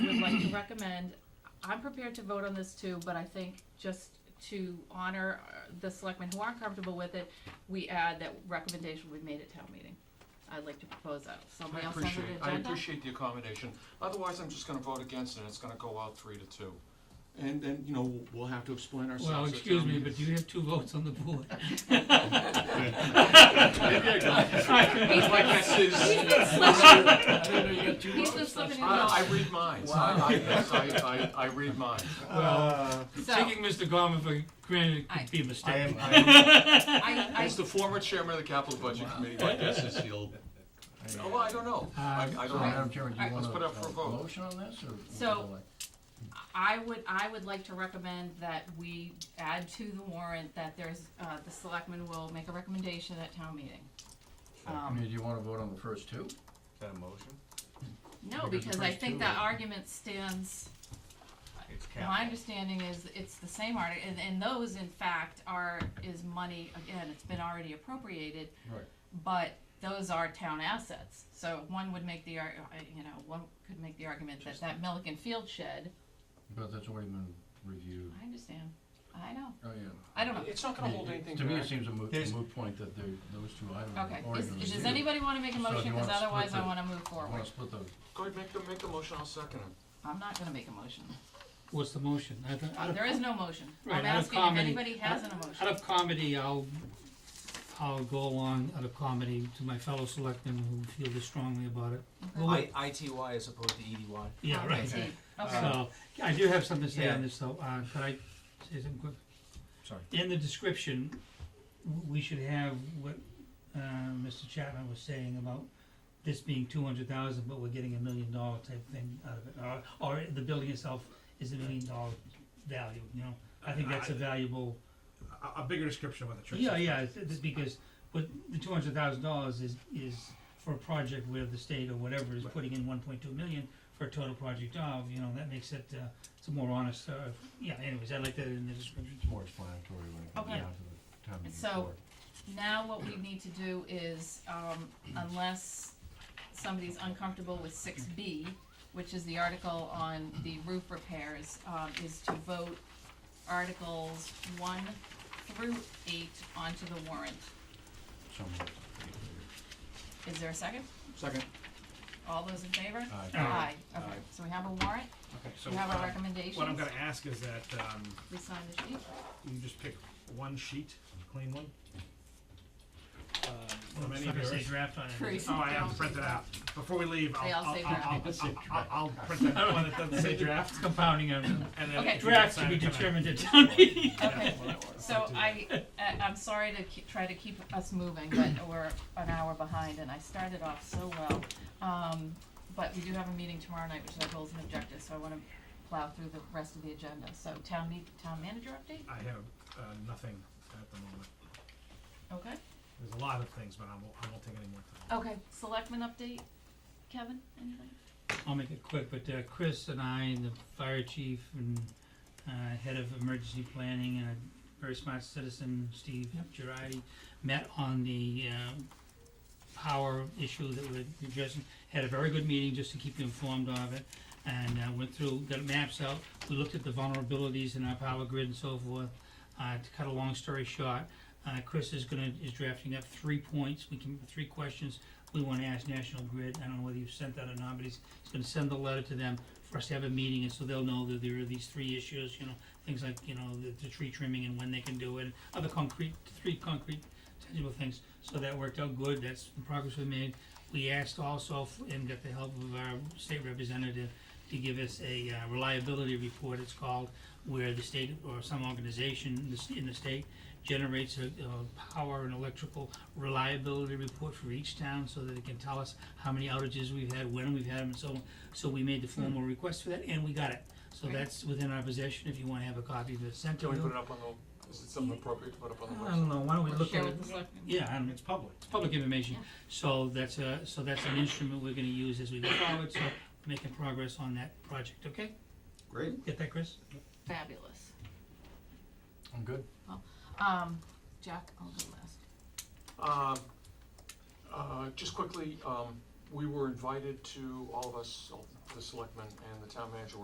like to recommend, I'm prepared to vote on this too, but I think just to honor uh, the selectmen who aren't comfortable with it, we add that recommendation will be made at town meeting. I'd like to propose that. I Somebody else on the appreciate, agenda? I appreciate the accommodation. Otherwise, I'm just gonna vote against it, and it's gonna go out three to two. And then, you know, we'll- we'll have to explain ourselves. Well, at excuse town me, meeting. but you have two votes on the board. Maybe I don't. It's like that's his- He's been slipping in I, I those. read minds. I, I, yes, I, I, I read minds. Well, So- taking Mr. Gorman for granted I- could be a I am, mistake. I am, I, As the former chairman of the capital budget committee, my guess is he'll, oh, well, I don't know. I, I so don't know. Madam Chairman, do Alright, you want let's put a up for a a vote. motion on this, or? So- I, I would, I would like to recommend that we add to the warrant that there's, uh, the selectmen will make a recommendation at town meeting. I Um, mean, do you wanna vote on the first two? Is that a motion? No, Because because the I first think two that are- argument stands, It's my capital. understanding is it's the same article, and, and those in fact are, is money, again, it's been already appropriated, Right. but those are town assets. So one would make the ar- uh, you know, one could make the argument that that Milliken Field shed, But that's already been reviewed, I understand, I know, oh, yeah. I don't know. It's not gonna hold It- it- anything To me, back. it seems a moot, There's- moot point that they, those two items have Okay, already is, been is- does reviewed. anybody wanna make a So if motion, you cause wanna split otherwise I the- wanna move You forward, wanna split the, Go ahead, make the, make the motion, I'll second it. I'm not gonna make a motion, What's the motion? Out of- out of- there is no motion, Right, I'm out of asking if comedy. anybody has an emotion. Out of comedy, I'll, I'll go along out of comedy to my fellow selectmen who feel this strongly about it. Well, I, ITY as opposed to E EDY. Yeah, right. Okay, Uh, okay, So, I do have something to say on Yeah. this though, uh, could I say something quick? Sorry. In the description, w- we should have what, uh, Mr. Chapman was saying about this being two hundred thousand, but we're getting a million dollar type thing out of it, or, or the building itself is a million dollar value, you know? I think that's a valuable, a, a bigger description of what the church yeah, is. yeah, it's- it's because, but the two hundred thousand dollars is, is for a project where the state or whatever is Right. putting in one point two million for a total project of, you know, that makes it, uh, it's a more honest, uh, yeah, anyways, I like that in the description. it's more explanatory when it comes Okay. down to the town meeting So- floor. now what we need to do is, um, unless somebody's uncomfortable with six B, which is the article on the roof repairs, um, is to vote articles one through eight onto the warrant. So moved. Is there a second? Second. All those in favor? Aye. Aye, Aye. okay, so we have a warrant, Okay, Uh, so we have our um, recommendations, what I'm going to ask is that um, we sign the sheet, you just pick one sheet, clean one. Um, from Well, it's any not of gonna say yours. draft on it. Crazy. Oh, I have to print it out. Before we leave, They all I'll, I'll, say I'll, draft. I'll, Let's say I'll, draft. I'll print that one that doesn't say draft. It's compounding on, And then Okay. if you draft to decide be tonight- determined at town meeting. okay. So I, I- I'm sorry to ke- try to keep us moving, but we're an hour behind and I started off so well. Um, but we do have a meeting tomorrow night, which is our goals and objectives, so I wanna plow through the rest of the agenda. So town meet, town manager update, I have uh, nothing at the moment. okay? There's a lot of things, but I won't, I won't take any more time. Okay, selectmen update, Kevin, anything? I'll make it quick, but uh, Chris and I and the fire chief and uh, head of emergency planning and a very smart citizen, Steve Girardi, met on the um, power issue that we're addressing. Had a very good meeting just to keep you informed of it, and uh, went through, got maps out. We looked at the vulnerabilities in our power grid and so forth. Uh, To cut a long story short, uh, Chris is gonna, is drafting up three points, we can, three questions we wanna ask National Grid. I don't know whether you've sent that or not, but he's He's gonna send the letter to them for us to have a meeting, and so they'll know that there are these three issues, you know, things like, you know, the, the tree trimming and when they can do it, and other concrete, three concrete tangible things. So that worked out good, that's the progress we made. We asked also, f- and got the help of our state representative, to give us a uh, reliability report, it's called, where the state or some organization in the, s- in the state generates a, a power and electrical reliability report for each town, so that it can tell us how many outages we've had, when we've had them, and so on. So we made the formal request for that, and we got it. So Great. that's within our possession, if you wanna have a copy of it sent to Can we put it you. up on the, is it something appropriate to put up on the I website? don't know, why don't we Or look share at it? with the selectmen? Yeah, I don't, It's public. it's public information. Yeah. So that's a, so that's an instrument we're gonna use as we go forward, so making progress on that project, okay? Great. Get that, Chris? Fabulous. I'm good. Um, Jack, I'll go last. Um, uh, Just quickly, um, we were invited to, all of us, all the selectmen and the town manager were